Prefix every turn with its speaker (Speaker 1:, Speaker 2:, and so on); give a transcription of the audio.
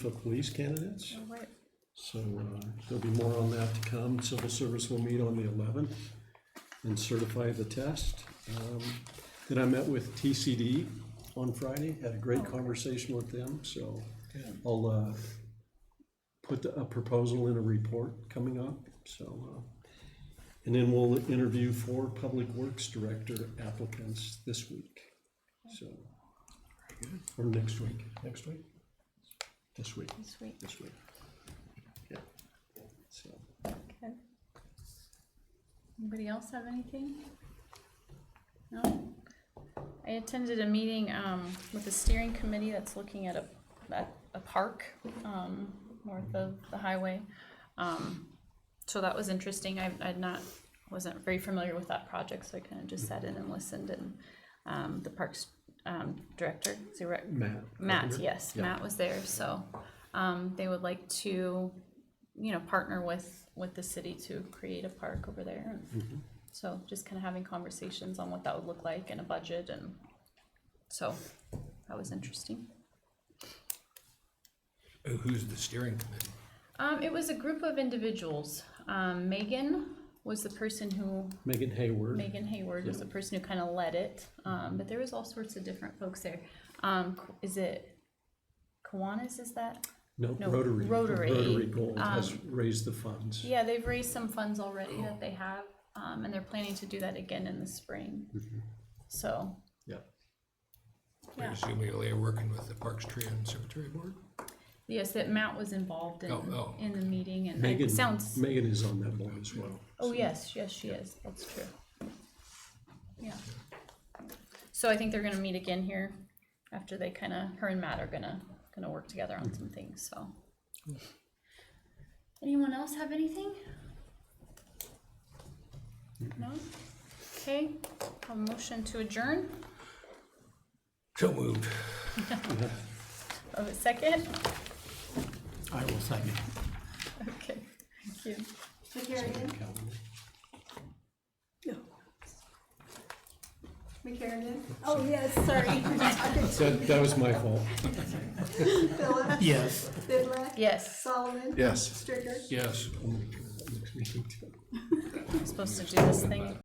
Speaker 1: for police candidates.
Speaker 2: All right.
Speaker 1: So uh, there'll be more on that to come. Civil service will meet on the 11th and certify the test. Um, Then I met with TCD on Friday, had a great conversation with them, so I'll uh, put a proposal in a report coming up, so. uh, And then we'll interview four Public Works Director applicants this week, so. Or next week. Next week? This week,
Speaker 2: This week,
Speaker 1: this week. Yeah. So,
Speaker 2: okay. Anybody else have anything? No? I attended a meeting, um, with the steering committee that's looking at a, at a park, um, north of the highway. Um, so that was interesting. I, I'd not, wasn't very familiar with that project, so I kind of just sat in and listened and, um, the parks, um, director, is he right?
Speaker 1: Matt.
Speaker 2: Matt,
Speaker 1: Carpenter?
Speaker 2: yes,
Speaker 1: Yeah.
Speaker 2: Matt was there, so, um, they would like to, you know, partner with, with the city to create a park over there. and So just kind of having conversations on what that would look like and a budget and, so, that was interesting.
Speaker 3: Uh, Who's the steering committee?
Speaker 2: Um, it was a group of individuals. Um, Megan was the person who,
Speaker 1: Megan Hayward.
Speaker 2: Megan Hayward was the person who kind of led it, um, but there was all sorts of different folks there. Um, K- is it Kiwanis, is that?
Speaker 1: No,
Speaker 2: no,
Speaker 1: Rotary.
Speaker 2: Rotary,
Speaker 1: Rotary Gold
Speaker 2: um,
Speaker 1: has raised the funds.
Speaker 2: Yeah, they've raised some funds already
Speaker 3: Oh.
Speaker 2: that they have, um, and they're planning to do that again in the spring.
Speaker 3: Mm-hmm.
Speaker 2: So,
Speaker 1: Yeah.
Speaker 3: I
Speaker 2: Yeah.
Speaker 3: assume you're there working with the Parks Tree and Cemetery Board?
Speaker 2: yes, that Matt was involved in,
Speaker 3: Oh, oh.
Speaker 2: in the meeting and
Speaker 1: Megan,
Speaker 2: it sounds,
Speaker 1: Megan is on that board as well.
Speaker 2: oh, yes, yes, she is, that's true. Yeah. So I think they're gonna meet again here after they kinda, her and Matt are gonna, gonna work together on some things, so. Anyone else have anything? No? Okay, a motion to adjourn?
Speaker 3: So moved.
Speaker 2: Oh, a second?
Speaker 1: I will second.
Speaker 2: Okay, thank you.
Speaker 4: McCarrigan, McCarrigan, oh, yes, sorry.
Speaker 1: That, that was my fault.
Speaker 4: Phillips,
Speaker 5: Yes.
Speaker 4: Bidlack.
Speaker 2: Yes,
Speaker 4: Solomon.
Speaker 1: Yes.
Speaker 4: Stricker.
Speaker 3: Yes.
Speaker 2: I'm supposed to do this thing.